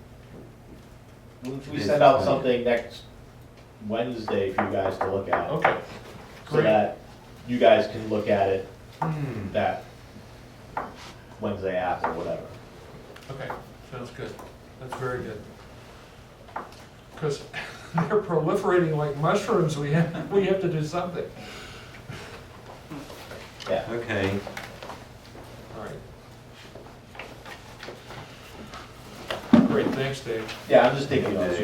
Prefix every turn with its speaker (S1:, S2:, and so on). S1: we we send out something next Wednesday for you guys to look at,
S2: Okay.
S1: so
S2: Oh, Great.
S1: that you guys can look at it
S2: Hmm,
S1: that Wednesday after, whatever.
S2: Okay, sounds good. That's very good. Because they're proliferating like mushrooms, we have, we have to do something.
S1: Yeah,
S3: Okay,
S2: All right. Great, thanks, Dave.
S1: yeah, I'm just thinking those.